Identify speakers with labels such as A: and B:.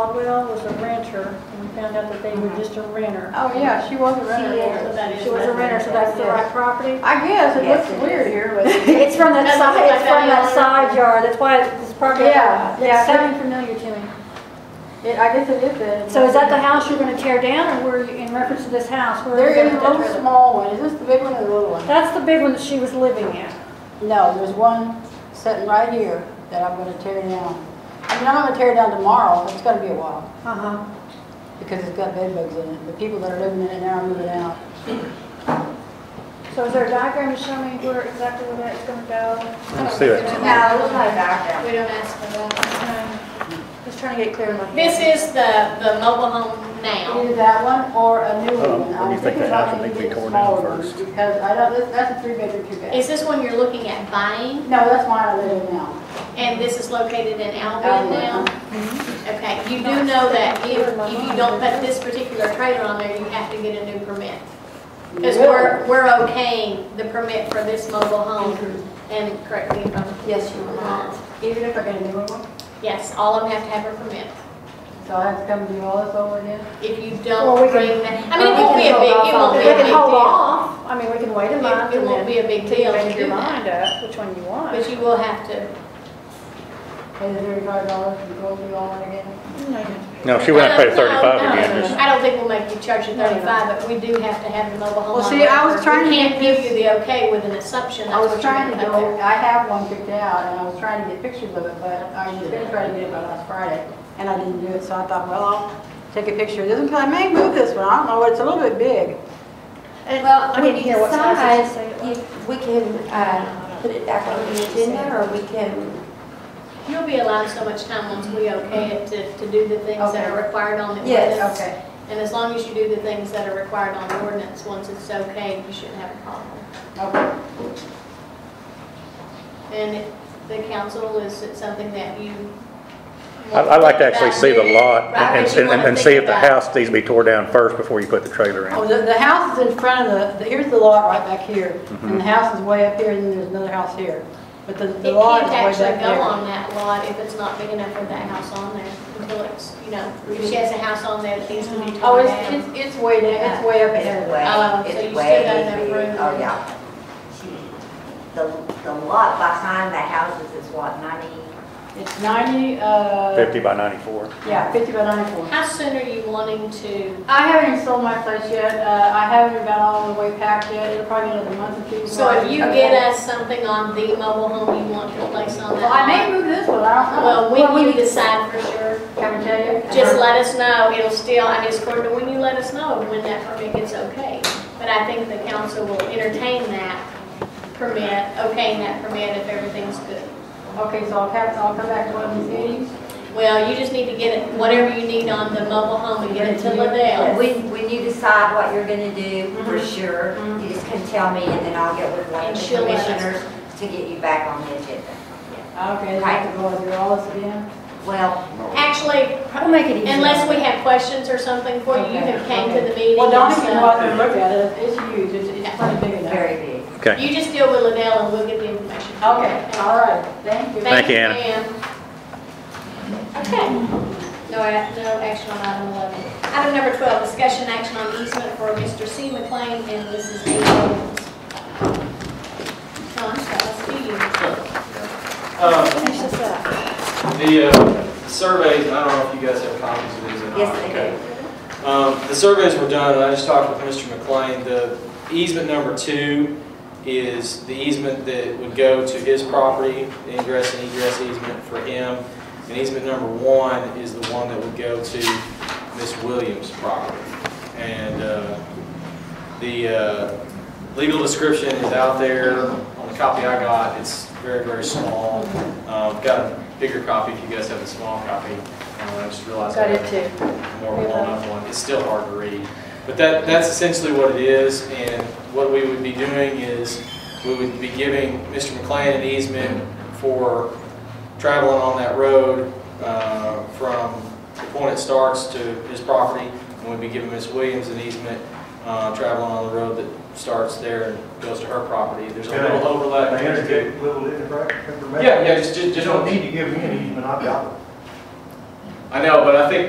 A: Caldwell was a renter, and we found out that they were just a renter.
B: Oh, yeah, she was a
C: So
B: renter.
C: that is
A: She was a
C: nothing.
A: renter, so that's the right property?
B: I guess, it
D: Yes,
B: looks
D: it
B: weird here, but.
A: It's from that
C: That's
A: side,
C: what
A: it's from
C: my
A: that
C: family-
A: side yard, that's why it's probably,
B: Yeah, yeah.
A: it's sounding familiar to me.
B: It, I guess it is that.
A: So is that the house you're gonna tear down, or were you, in reference to this house, where
B: There
A: is
B: is
A: that
B: one
A: trailer?
B: small one, is this the big one or the little one?
A: That's the big one that she was living in.
B: No, there's one sitting right here that I'm gonna tear down. I mean, I'm not gonna tear it down tomorrow, but it's gonna be a while,
A: Uh-huh.
B: because it's got bed bugs in it, the people that are living in it now are moving out.
A: So is there a diagram to show me where exactly where that's gonna go?
E: Let's see it.
D: Yeah, it looks like background.
C: We don't ask for that.
A: Okay. Just um, trying to get clear in my
C: This
A: head.
C: is the, the mobile home now.
B: Either that one or a new
E: Um,
B: one.
E: when
B: I'm
E: you think
B: thinking
E: that
B: about
E: house, I think we
B: maybe a
E: tore down
B: smaller one,
E: first.
B: Because I don't, this- that's a three bedroom, two bath.
C: Is this one you're looking at buying?
B: No, that's mine I live in now.
C: And this is located in Albion
B: Albion,
C: now?
B: uh-huh.
A: Mm-hmm.
C: Okay, you do know that if, if you don't put this particular trailer on there, you have to get a new permit. Because we're, we're okaying the permit for this mobile home,
A: Mm-hmm.
C: and correct me if I'm
B: Yes, you are.
C: wrong.
B: Even if I get a newer one?
C: Yes, all of them have to have a permit.
B: So I have to come and do all this over again?
C: If you
A: Well, we can-
C: don't bring that, I mean, it
A: we
C: won't
A: can
C: be a
A: hold
C: big, it
A: off on it.
C: won't be a
A: We
C: big
A: can hold
C: deal.
A: off, I mean, we can wait a
C: It-
A: month
C: it
A: and
C: won't
A: then
C: be a big
A: till you
C: deal to
A: make your
C: do that.
A: mind up, which one you want.
C: But you will have to,
B: Pay the thirty-five dollars and go through all that again?
E: No, she went up to pay
C: No,
E: thirty-five
C: no,
E: again. Just-
C: I don't think we'll make you charge you
A: No, no.
C: thirty-five, but we do have to have the mobile home.
B: Well,
C: on
B: see, I was
C: record.
B: trying to
C: We
B: get
C: can't give
B: this-
C: you the okay with an assumption.
B: I
C: that's
B: was
C: what you're
B: trying to
C: gonna put
B: go,
C: there.
B: I have one picked out, and I was trying to get pictures of it, but I was gonna try to get it by last Friday, and I didn't do it, so I thought, well, I'll take a picture of this, because I may move this one, I don't know, it's a little bit big.
A: I
D: Well, when
A: didn't
D: you
A: hear what size it
D: decide,
A: said it
D: you- we can uh, put it back on the agenda, or we can,
C: You'll be allowed so much time once we okay it to, to do the things that are
B: Okay.
C: required on the
D: Yes.
C: ordinance. And as long as you do the things that are required on the ordinance, once it's okay, you shouldn't have a problem.
B: Okay.
C: And if the council, is it something that you?
E: I- I'd like to actually see the lot
C: Right,
E: and,
C: but you
E: and,
C: wanna
E: and see
C: think
E: if the
C: about-
E: house needs to be tore down first before you put the trailer
B: Oh,
E: in.
B: the, the house is in front of the, the- here's the lot right back here,
E: Mm-hmm.
B: and the house is way up here, and then there's another house here, but the, the
C: It
B: lot is
C: can't
B: way back there.
C: actually go on that lot if it's not big enough for that house on there until it's, you know, if she has a house on there that needs to be
B: Oh,
C: torn
B: it's,
C: down.
B: it's, it's way down, it's way up
D: it's
B: there.
D: way,
C: Oh, so you
D: it's
C: still
D: way.
C: got enough
D: big.
C: room.
D: Oh, yeah. She- The, the lot behind the houses is what, ninety?
B: It's ninety, uh.
E: Fifty by ninety-four.
B: Yeah, fifty by ninety-four.
C: How soon are you wanting to,
B: I haven't even sold my place yet, uh, I haven't even got all the way packed yet, it'll probably be another month or two.
C: so
B: before I-
C: if you get us something on the mobile home you want to place on that
B: Well, I may
C: lot?
B: move this one, I don't know.
C: Well, when you decide for sure,
B: Can I tell you? Uh-huh.
C: just let us know, it'll still, I mean, it's according to when you let us know when that permit gets okay. But I think the council will entertain that permit, okaying that permit if everything's good.
B: Okay, so I'll have, I'll come back to one of these meetings.
C: Well, you just need to get it, whatever you need on the mobile home and get it to Liddell.
D: When, when you decide what you're gonna do, for sure, you just can tell me, and then I'll get with one
C: Mm-hmm.
D: of
C: And
D: the
C: she'll let us-
D: commissioners to get you back on the agenda.
B: Okay, I have to go through all this again.
D: Well,
C: Actually,
A: We'll make it easy.
C: unless we have questions or something for you, you have came to the meeting.
B: Well, Donna
C: and
B: can go
C: stuff.
B: out there and look at it, it's huge, it's, it's pretty big enough.
D: very big.
E: Okay.
C: You just deal with Liddell and we'll get the information.
B: Okay, all right, thank you.
E: Thank you, Anna.
C: Ann. Okay. No, a- no action on item 11. Item number 12, discussion action on easement for Mr. C. McLean and Mrs. A. Owens. John, that was to you.
F: Uh,
A: Finish this up.
F: The uh, surveys, I don't know if you guys have copies of these or not.
D: Yes, they do.
F: do. Um, the surveys were done, and I just talked with Mr. McLean, the easement number two is the easement that would go to his property, the ingress and egress easement for him. And easement number one is the one that would go to Miss Williams' property. And, uh, the, uh, legal description is out there on the copy I got. It's very, very small. Uh, I've got a bigger copy if you guys have a small copy. Uh, I just realized. I
A: Got it
F: have
A: too.
F: a More worn up one. It's still hard to read. But that, that's essentially what it is. And what we would be doing is we would be giving Mr. McLean an easement for traveling on that road uh, from the point it starts to his property. And we'd be giving Miss Williams an easement uh, traveling on the road that starts there and goes to her property. There's a little overlap.
G: Can I interject a little bit of information?
F: Yeah, yeah, just, just.
G: You
F: just-
G: don't need to give me an easement, I've got one.
F: I know, but I think